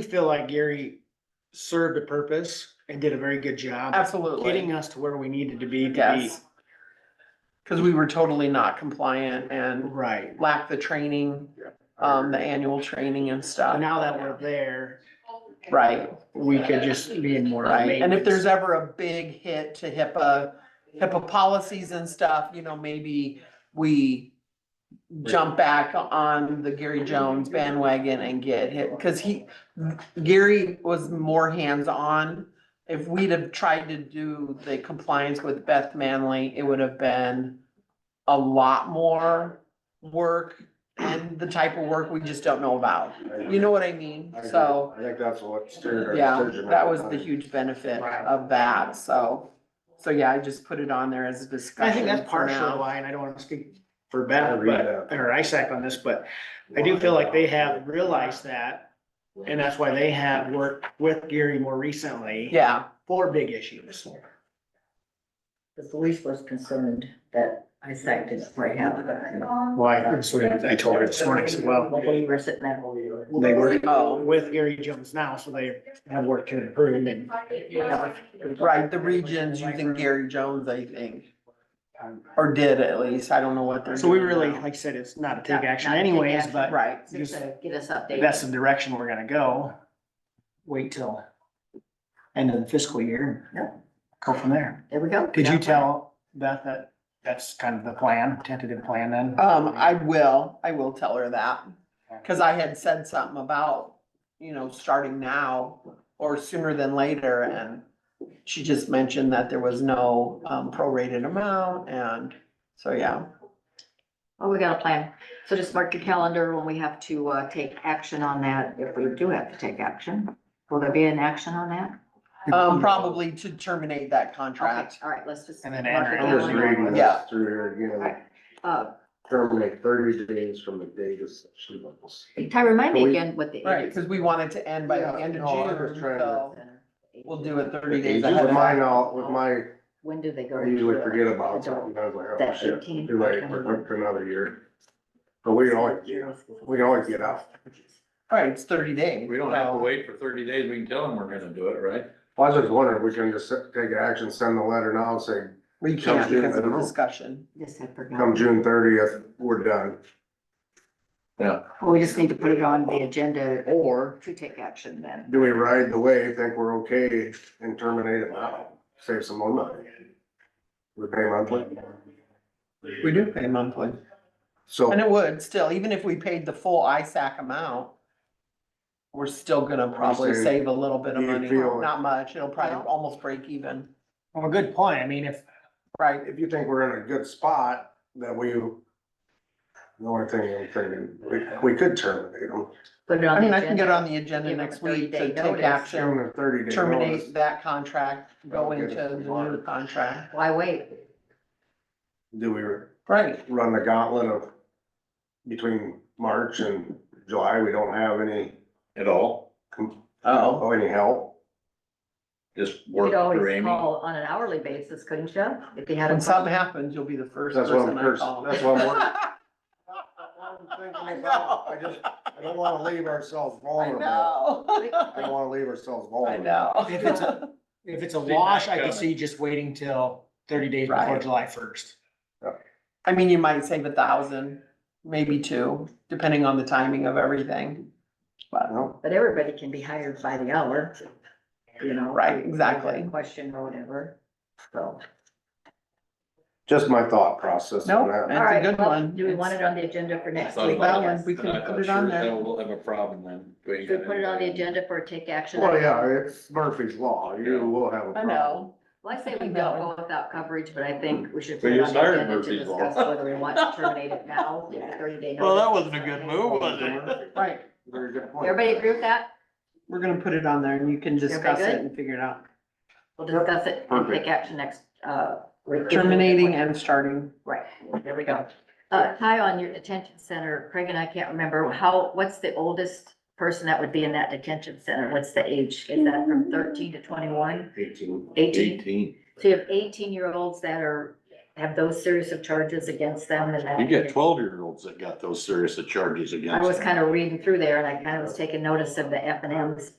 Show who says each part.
Speaker 1: do feel like Gary served a purpose and did a very good job getting
Speaker 2: Absolutely,
Speaker 1: us to where we needed to be to
Speaker 2: yes. Cause we were totally not compliant
Speaker 1: be,
Speaker 2: and
Speaker 1: right.
Speaker 2: lacked the training, um, the annual training and
Speaker 1: So
Speaker 2: stuff.
Speaker 1: now that we're there,
Speaker 2: Right,
Speaker 1: we could just be in more.
Speaker 2: right. And if
Speaker 1: maintenance.
Speaker 2: there's ever a big hit to HIPAA, HIPAA policies and stuff, you know, maybe we jump back on the Gary Jones bandwagon and get hit, cause he, Gary was more hands-on. If we'd have tried to do the compliance with Beth Manley, it would have been a lot more work and the type of work we just don't know about. You know what I mean?
Speaker 3: I agree.
Speaker 2: So,
Speaker 3: I think that's what steered our
Speaker 2: yeah,
Speaker 3: decision.
Speaker 2: that was the huge benefit of that, so. So, yeah, I just put it on there as a discussion.
Speaker 1: I think that's
Speaker 2: for
Speaker 1: partially
Speaker 2: now.
Speaker 1: why, and I don't wanna speak for
Speaker 3: I
Speaker 1: Beth,
Speaker 3: agree with
Speaker 1: but, or ISAC on this, but I do feel like they have realized that. And that's why they have worked with Gary more recently.
Speaker 2: Yeah,
Speaker 1: For big issues.
Speaker 4: The police was concerned that ISAC didn't quite have that.
Speaker 1: Well, I, I told her this morning as well.
Speaker 4: We were sitting there.
Speaker 1: Well, They work
Speaker 2: Oh.
Speaker 1: with Gary Jones now, so they have work to improve and.
Speaker 2: right, the region's using Gary Jones, I think, or did at least, I don't know what they're.
Speaker 1: So we
Speaker 2: doing
Speaker 1: really,
Speaker 2: now.
Speaker 1: like I said, it's not a take action
Speaker 4: Not a take
Speaker 1: anyways,
Speaker 4: action.
Speaker 1: but
Speaker 2: Right,
Speaker 4: Just to get us updated.
Speaker 1: that's the direction we're gonna go. Wait till end of the fiscal year.
Speaker 4: Yeah.
Speaker 1: Go from there.
Speaker 4: There we go.
Speaker 1: Did you tell Beth that that's kind of the plan, tentative plan then?
Speaker 2: um, I will, I will tell her that, cause I had said something about, you know, starting now or sooner than later, and she just mentioned that there was no, um, prorated amount, and, so, yeah.
Speaker 4: Oh, we got a plan. So just mark your calendar when we have to, uh, take action on that. If we do have to take action, will there be an action on that?
Speaker 2: Um, probably to terminate that contract.
Speaker 4: Okay, All right, let's just.
Speaker 1: And then
Speaker 4: mark your
Speaker 1: Andrew.
Speaker 3: I'm just
Speaker 4: calendar.
Speaker 3: reading
Speaker 2: Yeah.
Speaker 3: this through here again,
Speaker 4: Alright. Uh,
Speaker 3: terminate thirty days from the date of such notice.
Speaker 4: Ty,
Speaker 3: Can
Speaker 4: remind me
Speaker 3: we-
Speaker 4: again what the.
Speaker 2: Right, because we want it to end by the
Speaker 3: Yeah,
Speaker 2: end of
Speaker 3: no, I was
Speaker 2: June,
Speaker 3: trying to-
Speaker 2: so we'll do it thirty days ahead
Speaker 3: With
Speaker 2: of
Speaker 3: my,
Speaker 2: time.
Speaker 3: knowl- with my,
Speaker 4: When do they go?
Speaker 3: I usually
Speaker 4: to
Speaker 3: forget about
Speaker 4: adult?
Speaker 3: something, I was like, oh
Speaker 4: That
Speaker 3: shit,
Speaker 4: eighteen.
Speaker 3: too late, we're up to another year. But we can always, get out. we can always get out.
Speaker 2: Alright, it's thirty days.
Speaker 5: We don't have to
Speaker 2: so-
Speaker 5: wait for thirty days, we can tell them we're gonna do it, right?
Speaker 3: Well, I was just wondering, if we can just take action, send the letter now, and say,
Speaker 2: We
Speaker 3: Come
Speaker 2: can't
Speaker 3: June,
Speaker 2: because
Speaker 3: I
Speaker 2: of
Speaker 3: don't
Speaker 2: the
Speaker 3: know.
Speaker 2: discussion.
Speaker 4: Yes, I forgot.
Speaker 2: Mm-hmm.
Speaker 3: come June thirtieth, we're done.
Speaker 4: Well, We just need to put it on the agenda
Speaker 3: Or
Speaker 4: to take action then.
Speaker 3: do we ride the wave, think we're okay, and terminate it now, save some more money? We pay monthly,
Speaker 2: We do pay monthly.
Speaker 3: so.
Speaker 2: And it would still, even if we paid the full ISAC amount, we're still gonna probably
Speaker 3: saying,
Speaker 2: save a little bit of
Speaker 3: you
Speaker 2: money,
Speaker 3: feel-
Speaker 2: not much, it'll probably
Speaker 4: No.
Speaker 2: almost break even,
Speaker 1: Well, a good point. I mean, if,
Speaker 2: right?
Speaker 3: if you think we're in a good spot, that we, the only thing I'm thinking, we, we could terminate them.
Speaker 4: Put it on
Speaker 2: I
Speaker 4: the
Speaker 2: mean, I can get
Speaker 4: agenda.
Speaker 2: on the agenda
Speaker 4: Give them
Speaker 2: next
Speaker 4: a 30
Speaker 2: week
Speaker 4: day
Speaker 2: to take
Speaker 4: notice.
Speaker 2: action,
Speaker 3: Terminate thirty day notice.
Speaker 2: terminate that contract, go
Speaker 3: Oh, Okay.
Speaker 2: into the new contract,
Speaker 4: Why wait?
Speaker 3: Do we
Speaker 2: right?
Speaker 3: run the gauntlet of between March and July, we don't have any,
Speaker 5: At all,
Speaker 2: Oh.
Speaker 3: oh, any help?
Speaker 5: just
Speaker 4: You
Speaker 5: work
Speaker 4: could
Speaker 5: for
Speaker 4: always
Speaker 5: Amy.
Speaker 4: call on an hourly basis, couldn't you? If you had a.
Speaker 2: When something happens, you'll be the first
Speaker 3: That's what
Speaker 2: person
Speaker 3: I'm
Speaker 2: I
Speaker 3: pers-
Speaker 2: call.
Speaker 3: that's what I'm worried-
Speaker 2: I I know.
Speaker 3: I just, I don't wanna leave ourselves vulnerable. I don't
Speaker 2: know.
Speaker 3: wanna leave ourselves
Speaker 2: I
Speaker 3: vulnerable.
Speaker 1: If it's
Speaker 2: know.
Speaker 1: if it's a
Speaker 5: See,
Speaker 1: wash, I
Speaker 5: that's
Speaker 1: could
Speaker 5: coming.
Speaker 1: see just waiting till thirty days before
Speaker 2: Right.
Speaker 1: July first.
Speaker 2: I mean, you might save a thousand, maybe two, depending on the timing of everything. But,
Speaker 3: No,
Speaker 4: But everybody can be hired by the hour, you know?
Speaker 2: Right, exactly.
Speaker 4: Question or whatever, so.
Speaker 3: just my thought process
Speaker 2: no,
Speaker 3: on that.
Speaker 2: that's a
Speaker 4: Alright,
Speaker 2: good
Speaker 4: well,
Speaker 2: one.
Speaker 4: Do we want it on the agenda for next
Speaker 5: Thought
Speaker 4: week?
Speaker 5: about
Speaker 2: it.
Speaker 4: Yes. Uh,
Speaker 2: We
Speaker 5: And
Speaker 2: can
Speaker 5: I
Speaker 2: put
Speaker 5: thought,
Speaker 2: it on
Speaker 5: sure,
Speaker 2: there.
Speaker 5: hell, We'll have a problem then.
Speaker 4: Should we put it on the agenda for a take action?
Speaker 3: Well, yeah, it's Murphy's law, you will have a
Speaker 2: I
Speaker 3: problem.
Speaker 2: know.
Speaker 4: Well, I say we don't go without coverage, but I think we should
Speaker 5: But
Speaker 4: put it
Speaker 5: you
Speaker 4: on the
Speaker 5: started
Speaker 4: agenda to
Speaker 5: Murphy's Law.
Speaker 4: discuss whether we want to terminate it now, give it thirty day.
Speaker 1: Well, that
Speaker 4: notice.
Speaker 1: wasn't a good move, was it?
Speaker 2: Right,
Speaker 3: Very good point.
Speaker 4: Everybody agree with that?
Speaker 2: we're gonna put it on there and you can discuss
Speaker 4: good?
Speaker 2: it and figure it out.
Speaker 4: We'll discuss it and
Speaker 3: Perfect.
Speaker 4: take action next, uh. week.
Speaker 2: Terminating and starting.
Speaker 4: Right, there we go. Uh, Ty, on your detention center, Craig and I can't remember, how, what's the oldest person that would be in that detention center? What's the age? Is that from thirteen to twenty-one?
Speaker 3: Eighteen.
Speaker 4: Eighteen?
Speaker 5: Eighteen.
Speaker 4: So you have eighteen-year-olds that are have those series of charges against them and that.
Speaker 3: You get twelve-year-olds that got those serious of charges against
Speaker 4: I
Speaker 3: them.
Speaker 4: was kind of reading through there and I kind of was taking notice of the F and Ms